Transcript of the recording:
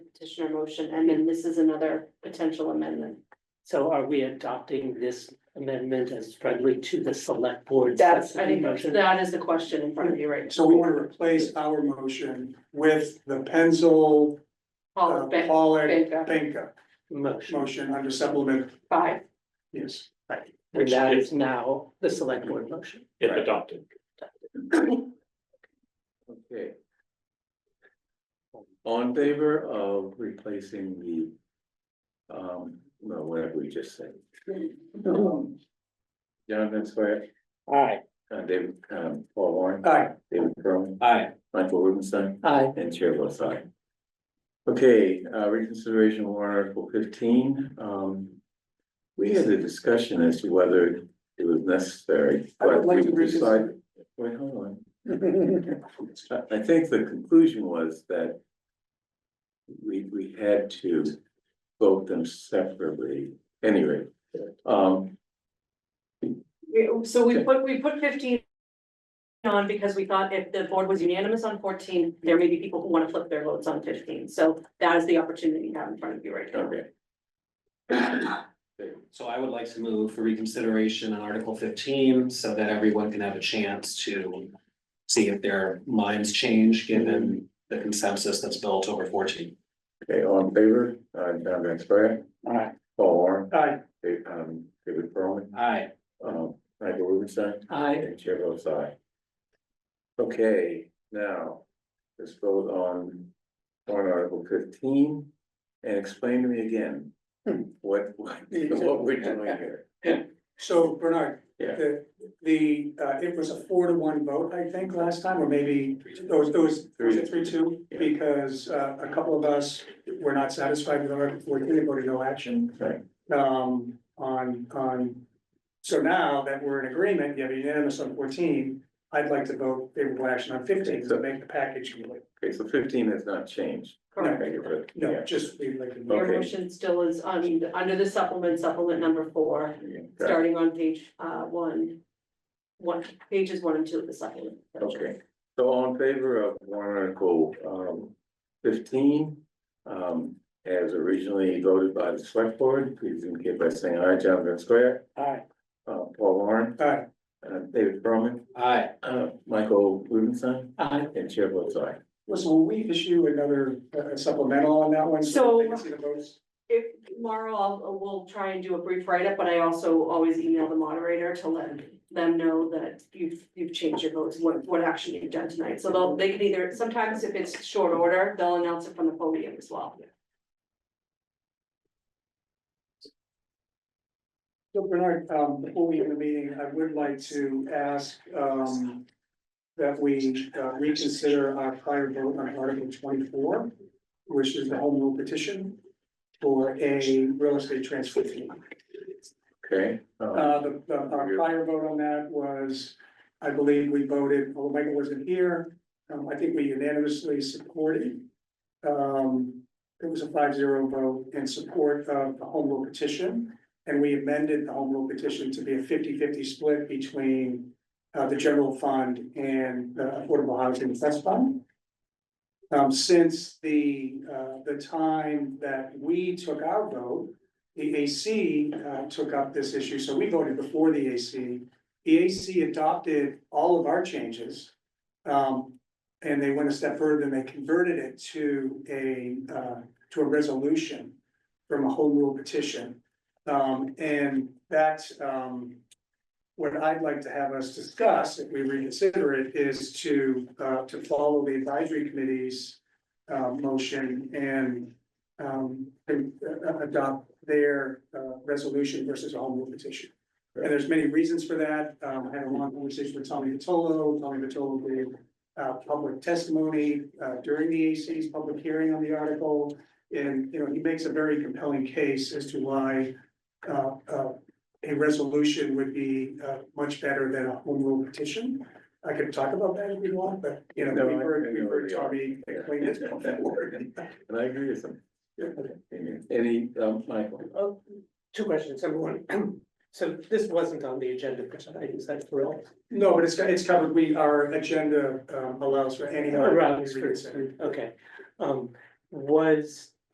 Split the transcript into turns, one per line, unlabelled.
petitioner motion, and then this is another potential amendment.
So are we adopting this amendment as friendly to the select board?
That's-
I think
motion?
that is the question in front of you right now.
So we want to replace our motion with the pencil,
All
uh,
of Oh, Ben,
Pollock,
Benka,
Benka
Motion,
motion under supplement,
uh, five,
yes.
and that is now the select board motion.
if adopted.
Okay. All in favor of replacing the, um, no, whatever we just said. John Van Square,
All right.
uh, David, um, Paul Warren,
Aye,
David Crowe,
Aye.
Michael Rubenstein.
Aye.
And chair votes aye. Okay, uh, reconsideration warrant article fifteen, um. We had a discussion as to whether it was necessary,
I
but
would
we
like to
decided.
reconsider.
Wait, hold on. I, I think the conclusion was that. We, we had to vote them separately, anyway, um,
We- so we put, we put fifteen. On because we thought if the board was unanimous on fourteen, there may be people who wanna flip their votes on fifteen, so that is the opportunity you have in front of you right now.
okay.
So I would like to move for reconsideration on Article fifteen, so that everyone can have a chance to see if their minds change, given the consensus that's built over fourteen.
Okay, all in favor, uh, John Van Square,
Aye.
Paul Warren,
aye.
David, um, David Crowe.
Aye.
Um, Michael Rubenstein,
Aye.
and Chair votes aye. Okay, now, let's vote on warrant article fifteen, and explain to me again. What, what, what we're doing here,
So Bernard,
Yeah.
the, the, uh, it was a four to one vote, I think, last time, or maybe it was, it was, was it three two?
Yeah.
Because, uh, a couple of us were not satisfied with Article fourteen, they voted no action.
Right.
Um, on, on, so now that we're in agreement, you have unanimous on fourteen, I'd like to vote favorable action on fifteen to make the package complete.
okay, so fifteen has not changed.
Correct.
Okay, but-
No,
yeah,
just, we'd like to.
Your
Okay.
motion still is, I mean, under the supplement, supplement number four,
yeah, got it.
starting on page, uh, one. One, pages one and two of the supplement.
Okay, so all in favor of warrant article, um, fifteen, um, as originally voted by the select board, please indicate by saying aye, John Van Square,
Aye.
uh, Paul Warren,
Aye.
uh, David Berman,
Aye.
Uh, Michael Rubenstein
Aye.
and Chair votes aye.
Listen, will we issue another uh, supplemental on that one? that they
So-
can see the votes?
If tomorrow, I'll, we'll try and do a brief write-up, but I also always email the moderator to let them know that you've, you've changed your votes, what, what action you've done tonight. So they'll, they can either, sometimes if it's short order, they'll announce it from the podium as well.
So Bernard, um, before we end the meeting, I would like to ask, um, that we uh, reconsider our prior vote on Article twenty-four, which is the home rule petition for a real estate transfer fee.
Okay, um,
Uh, the, the, our prior vote on that was, I believe we voted, although Michael wasn't here, um, I think we unanimously supported. Um, it was a five zero vote in support of the home rule petition. And we amended the home rule petition to be a 50-50 split between, uh, the general fund and the affordable housing trust fund. Um, since the, uh, the time that we took our vote, the AC uh, took up this issue, so we voted before the AC. The AC adopted all of our changes. um, and they went a step further and they converted it to a, uh, to a resolution from a home rule petition. Um, and that's, um, what I'd like to have us discuss, if we reconsider it, is to, uh, to follow the advisory committee's uh, motion and, um, and, uh, adopt their uh resolution versus a home rule petition. And there's many reasons for that. Um, I had a long conversation with Tommy Vitolo. Tommy Vitolo gave uh public testimony uh during the AC's public hearing on the article. And, you know, he makes a very compelling case as to why uh uh a resolution would be uh much better than a home rule petition. I could talk about that if you want, but, you know,
No,
we've
I- I
heard,
know
we've heard
the
Tommy explain this before.
and I agree with him. Any, um, Michael?
Oh, two questions, number one. So this wasn't on the agenda, because I use that for all.
No, but it's, it's covered, we, our agenda um, allows for any. other
Right,
reason.
okay. Um, was